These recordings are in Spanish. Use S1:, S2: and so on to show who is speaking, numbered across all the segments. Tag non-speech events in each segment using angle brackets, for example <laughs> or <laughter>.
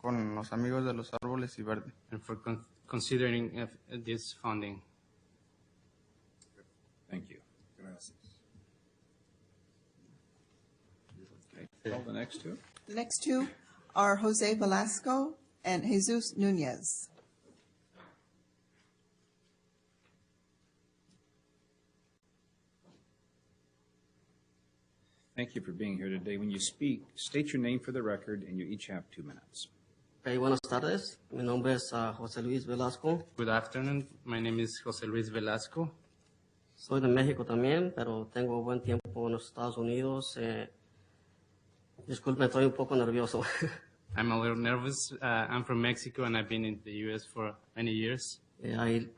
S1: con los Amigos de los Árboles y Verde.
S2: and for con- considering if- this funding.
S3: Thank you. Gracias. Call the next two.
S4: The next two are Jose Velasco and Jesus Nunez.
S3: Thank you for being here today. When you speak, state your name for the record, and you each have two minutes.
S5: Ok, buenas tardes. Mi nombre es ah, José Luis Velasco.
S2: Good afternoon. My name is José Luis Velasco.
S5: Soy de México también, pero tengo buen tiempo en los Estados Unidos. Eh, disculpe, estoy un poco nervioso. <laughs>
S2: I'm a little nervous. Uh, I'm from Mexico and I've been in the U.S. for many years.
S5: Eh, ahí-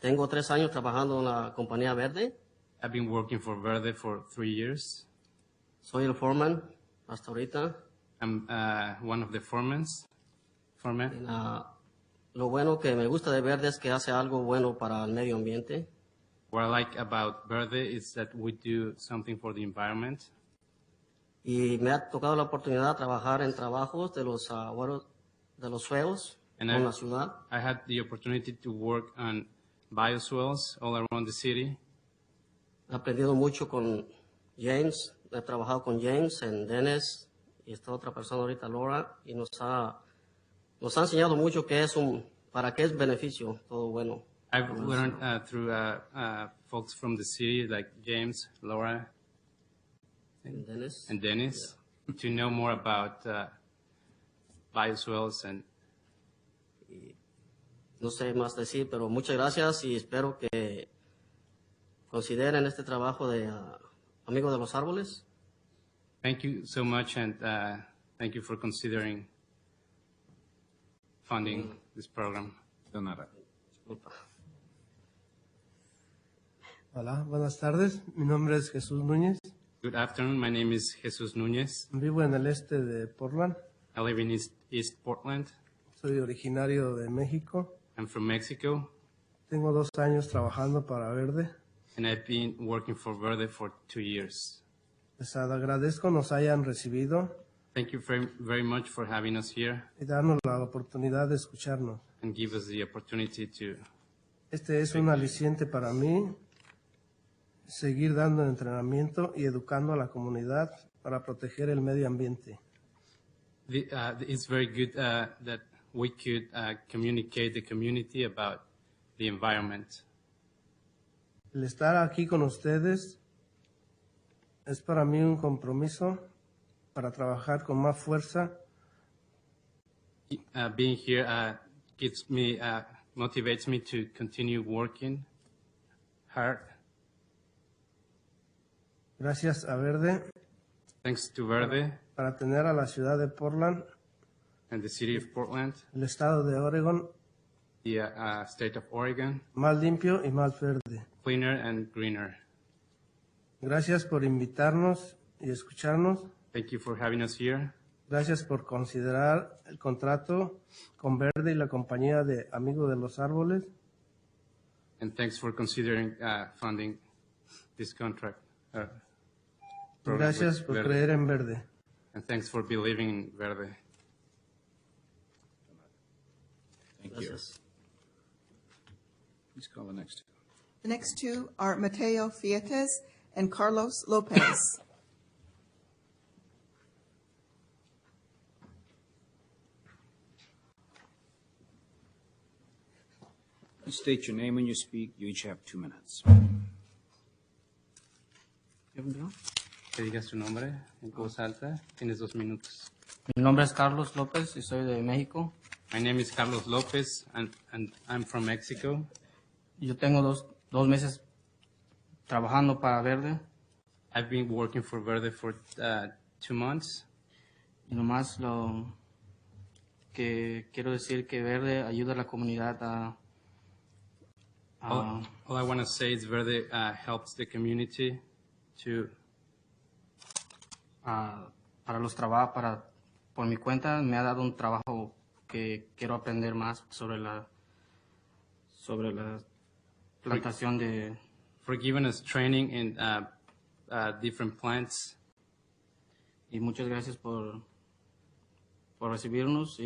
S5: tengo tres años trabajando en la compañía verde.
S2: I've been working for Verde for three years.
S5: Soy el foreman hasta ahorita.
S2: I'm uh, one of the foremans. Foreman.
S5: Ah, lo bueno que me gusta de verde es que hace algo bueno para el medio ambiente.
S2: What I like about Verde is that we do something for the environment.
S5: Y me ha tocado la oportunidad de trabajar en trabajos de los, ah, bueno, de los suelos
S2: And
S5: en
S2: I-
S5: la ciudad.
S2: I had the opportunity to work on bioswales all around the city.
S5: He aprendido mucho con James, he trabajado con James, en Dennis y esta otra persona ahorita, Laura, y nos ha, nos ha enseñado mucho que es un, para qué es beneficio, todo bueno.
S2: I've learned uh, through uh, uh, folks from the city like James, Laura,
S5: En Dennis.
S2: and Dennis to know more about uh, bioswales and
S5: No sé más decir, pero muchas gracias y espero que consideren este trabajo de ah, Amigo de los Árboles.
S2: thank you so much and uh, thank you for considering funding this program.
S3: Donata.
S5: Disculpa.
S6: Hola, buenas tardes. Mi nombre es Jesús Núñez.
S2: Good afternoon. My name is Jesus Nunez.
S6: Vivo en el este de Portland.
S2: I live in East, East Portland.
S6: Soy originario de México.
S2: I'm from Mexico
S6: Tengo dos años trabajando para Verde.
S2: and I've been working for Verde for two years.
S6: Les agradezco nos hayan recibido
S2: Thank you very, very much for having us here
S6: y darnos la oportunidad de escucharnos.
S2: and give us the opportunity to
S6: Este es un aliciente para mí seguir dando entrenamiento y educando a la comunidad para proteger el medio ambiente.
S2: The, uh, it's very good uh, that we could uh, communicate the community about the environment.
S6: El estar aquí con ustedes es para mí un compromiso para trabajar con más fuerza
S2: Uh, being here uh, gets me, uh, motivates me to continue working hard.
S6: gracias a Verde
S2: Thanks to Verde
S6: para tener a la ciudad de Portland,
S2: and the city of Portland,
S6: el estado de Oregon,
S2: the uh, uh, state of Oregon,
S6: más limpio y más verde.
S2: cleaner and greener.
S6: Gracias por invitarnos y escucharnos.
S2: Thank you for having us here.
S6: Gracias por considerar el contrato con Verde y la compañía de Amigos de los Árboles.
S2: And thanks for considering uh, funding this contract. Uh, program with
S6: Gracias por
S2: Verde.
S6: creer en Verde.
S2: And thanks for believing in Verde.
S3: Thank you.
S5: Gracias.
S3: Please call the next two.
S4: The next two are Mateo Fietes and Carlos Lopez.
S3: Please state your name when you speak. You each have two minutes.
S2: Que digas tu nombre en voz alta. Tienes dos minutos.
S5: Mi nombre es Carlos López y soy de México.
S2: My name is Carlos Lopez and, and I'm from Mexico.
S5: Yo tengo dos, dos meses trabajando para Verde
S2: I've been working for Verde for uh, two months.
S5: y nomás lo que quiero decir que Verde ayuda a la comunidad a...
S2: All, all I want to say is Verde uh, helps the community to,
S5: a- para los trabajos, para, por mi cuenta, me ha dado un trabajo que quiero aprender más sobre la, sobre la plantación de,
S2: for giving us training in uh, uh, different plants.
S5: y muchas gracias por, por recibirnos